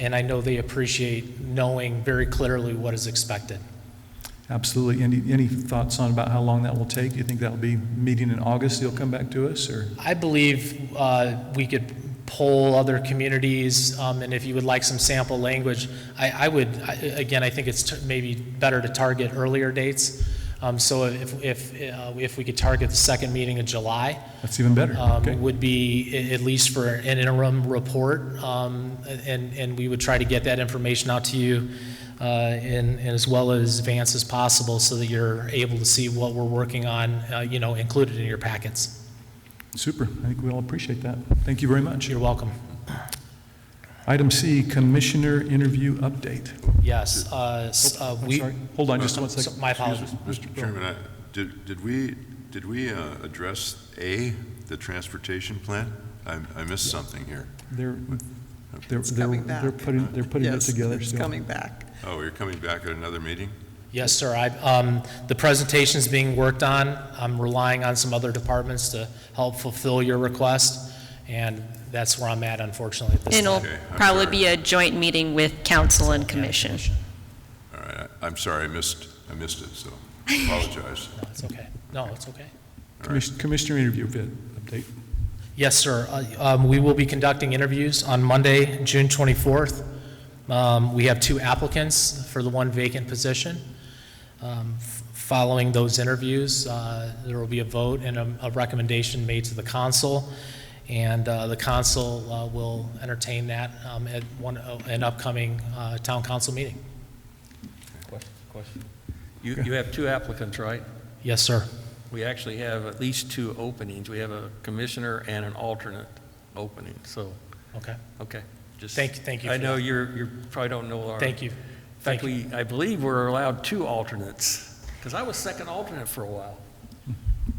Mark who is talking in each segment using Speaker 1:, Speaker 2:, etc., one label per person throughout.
Speaker 1: and I know they appreciate knowing very clearly what is expected.
Speaker 2: Absolutely. Any, any thoughts on about how long that will take? Do you think that'll be meeting in August, they'll come back to us, or?
Speaker 1: I believe uh, we could poll other communities, um, and if you would like some sample language, I, I would, I- again, I think it's t- maybe better to target earlier dates. Um, So if, if, uh, if we could target the second meeting of July,
Speaker 2: That's even better.
Speaker 1: um,
Speaker 2: Okay.
Speaker 1: would be a- at least for an interim report, um, and, and we would try to get that information out to you uh, in, in as well as advance as possible, so that you're able to see what we're working on, uh, you know, included in your packets.
Speaker 2: Super. I think we all appreciate that. Thank you very much.
Speaker 1: You're welcome.
Speaker 2: Item C, Commissioner Interview Update.
Speaker 1: Yes, uh, s- uh,
Speaker 2: Oh, I'm
Speaker 1: we,
Speaker 2: sorry. Hold on just one
Speaker 1: so-
Speaker 2: second.
Speaker 1: my
Speaker 3: Excuse me,
Speaker 1: apologies.
Speaker 3: Mr. Chairman, I- did, did we, did we uh, address A, the transportation plan? I, I missed something here.
Speaker 2: They're, they're,
Speaker 4: It's
Speaker 2: they're
Speaker 4: coming back.
Speaker 2: they're putting, they're putting it
Speaker 4: Yes,
Speaker 2: together
Speaker 4: It's
Speaker 2: still.
Speaker 4: coming back.
Speaker 3: Oh, you're coming back at another meeting?
Speaker 1: Yes, sir, I, um, the presentation's being worked on. I'm relying on some other departments to help fulfill your request, and that's where I'm at unfortunately at this
Speaker 5: It'll
Speaker 1: time.
Speaker 3: Okay, I'm
Speaker 5: probably
Speaker 3: sorry.
Speaker 5: be a joint meeting with council and commission.
Speaker 3: All right, I- I'm sorry, I missed, I missed it, so I apologize.
Speaker 1: No, it's okay. No, it's okay.
Speaker 2: Commis- Commissioner Interview Vid- Update.
Speaker 1: Yes, sir. Uh, um, We will be conducting interviews on Monday, June 24th. Um, We have two applicants for the one vacant position. Um, f- Following those interviews, uh, there will be a vote and a a recommendation made to the council, and uh, the council uh, will entertain that um, at one, uh, an upcoming uh, town council meeting.
Speaker 6: Question. You, you have two applicants, right?
Speaker 1: Yes, sir.
Speaker 6: We actually have at least two openings. We have a commissioner and an alternate opening, so,
Speaker 1: Okay.
Speaker 6: okay. Just
Speaker 1: Thank you- thank you
Speaker 6: I
Speaker 1: for
Speaker 6: know you're, you probably don't know our.
Speaker 1: Thank you.
Speaker 6: In
Speaker 1: Thank
Speaker 6: fact,
Speaker 1: you.
Speaker 6: we, I believe we're allowed two alternates, because I was second alternate for a while.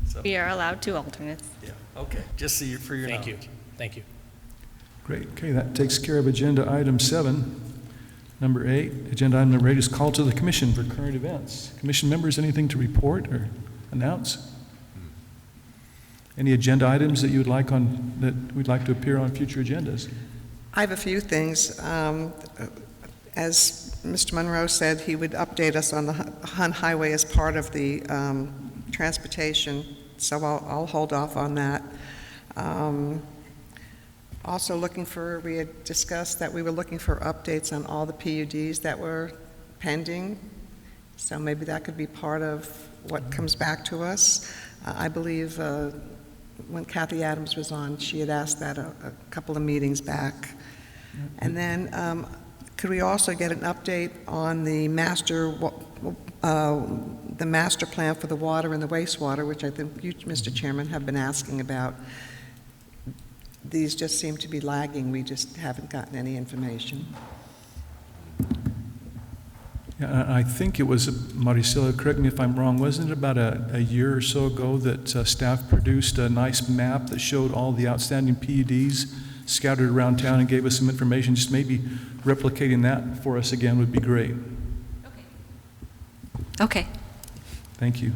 Speaker 6: So,
Speaker 5: We are allowed two alternates.
Speaker 6: yeah, okay, just so you, for your
Speaker 1: Thank
Speaker 6: knowledge.
Speaker 1: you. Thank you.
Speaker 2: Great. Okay, that takes care of Agenda Item 7. Number 8, Agenda Item Number 8 is Call to the Commission for Current Events. Commission members, anything to report or announce? Any agenda items that you would like on, that we'd like to appear on future agendas?
Speaker 4: I have a few things. Um, As Mr. Monroe said, he would update us on the hu- Hunt Highway as part of the um, transportation, so I'll, I'll hold off on that. Um, Also looking for, we had discussed that we were looking for updates on all the PUDs that were pending, so maybe that could be part of what comes back to us. Uh, I believe uh, when Kathy Adams was on, she had asked that a, a couple of meetings back. And then, um, could we also get an update on the master, wa- uh, the master plan for the water and the wastewater, which I think you, Mr. Chairman, have been asking about? These just seem to be lagging, we just haven't gotten any information.
Speaker 2: Yeah, I I think it was, uh, Maricela, correct me if I'm wrong, wasn't it about a, a year or so ago that uh, staff produced a nice map that showed all the outstanding PUDs scattered around town and gave us some information? Just maybe replicating that for us again would be great.
Speaker 5: Okay.
Speaker 2: Thank you.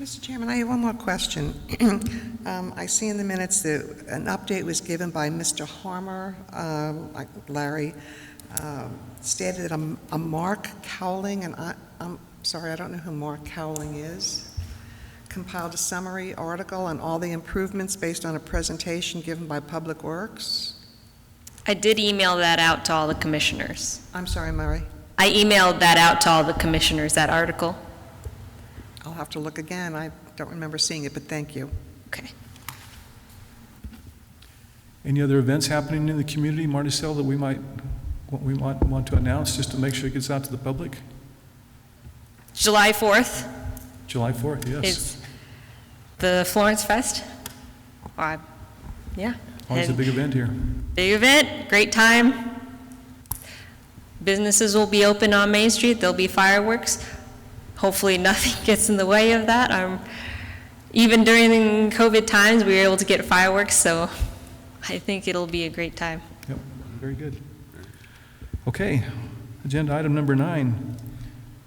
Speaker 4: Mr. Chairman, I have one more question. Um, I see in the minutes that an update was given by Mr. Harmer, um, like Larry, um, stated that a a Mark Cowling, and I, I'm sorry, I don't know who Mark Cowling is, compiled a summary article on all the improvements based on a presentation given by Public Works.
Speaker 5: I did email that out to all the commissioners.
Speaker 4: I'm sorry, Murray,
Speaker 5: I emailed that out to all the commissioners, that article.
Speaker 4: I'll have to look again, I don't remember seeing it, but thank you.
Speaker 5: Okay.
Speaker 2: Any other events happening in the community, Marticela, that we might, what we might want to announce, just to make sure it gets out to the public?
Speaker 5: July 4th
Speaker 2: July 4th, yes.
Speaker 5: is the Florence Fest. Or I- Yeah.
Speaker 2: Always a
Speaker 5: And
Speaker 2: big event here.
Speaker 5: Big event, great time. Businesses will be open on Main Street, there'll be fireworks. Hopefully, nothing gets in the way of that. Um, Even during COVID times, we were able to get fireworks, so I think it'll be a great time.
Speaker 2: Yep, very good. Okay, agenda item number nine,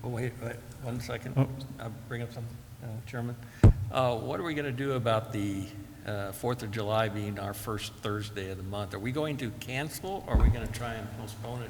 Speaker 6: Oh, wait, wait, one second.
Speaker 2: Oh.
Speaker 6: I'll bring up something, uh, Chairman. Uh, What are we going to do about the uh, Fourth of July being our first Thursday of the month? Are we going to cancel, or are we going to try and postpone it